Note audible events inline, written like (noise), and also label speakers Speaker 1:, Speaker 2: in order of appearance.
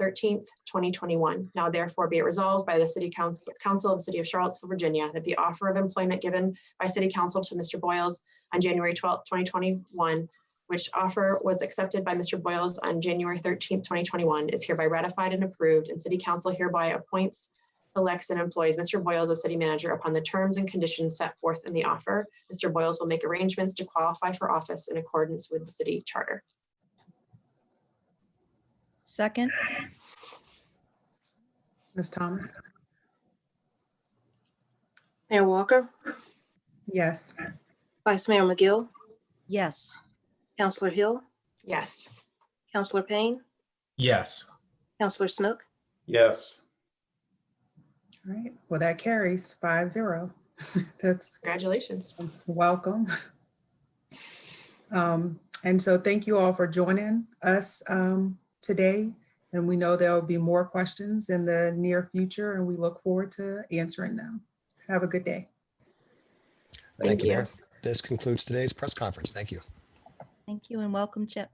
Speaker 1: thirteenth, twenty twenty-one. Now therefore be it resolved by the City Council, Council of the City of Charlottesville, Virginia, that the offer of employment given by City Council to Mr. Boyles on January twelfth, twenty twenty-one, which offer was accepted by Mr. Boyles on January thirteenth, twenty twenty-one, is hereby ratified and approved, and City Council hereby appoints, elects, and employs Mr. Boyles as city manager upon the terms and conditions set forth in the offer. Mr. Boyles will make arrangements to qualify for office in accordance with the city charter.
Speaker 2: Second,
Speaker 3: Ms. Thomas?
Speaker 4: Mayor Walker,
Speaker 3: Yes.
Speaker 4: Vice Mayor McGill,
Speaker 2: yes.
Speaker 4: Counselor Hill,
Speaker 1: Yes.
Speaker 4: Counselor Payne,
Speaker 5: Yes.
Speaker 4: Counselor Snook,
Speaker 6: yes,
Speaker 3: All right. Well, that carries five zero. (laughs) That's
Speaker 1: Congratulations.
Speaker 3: welcome. Um, And so thank you all for joining us um, today. And we know there will be more questions in the near future, and we look forward to answering them. Have a good day.
Speaker 1: Thank you.
Speaker 7: Mayor. This concludes today's press conference. Thank you.
Speaker 2: Thank you and welcome, Chip.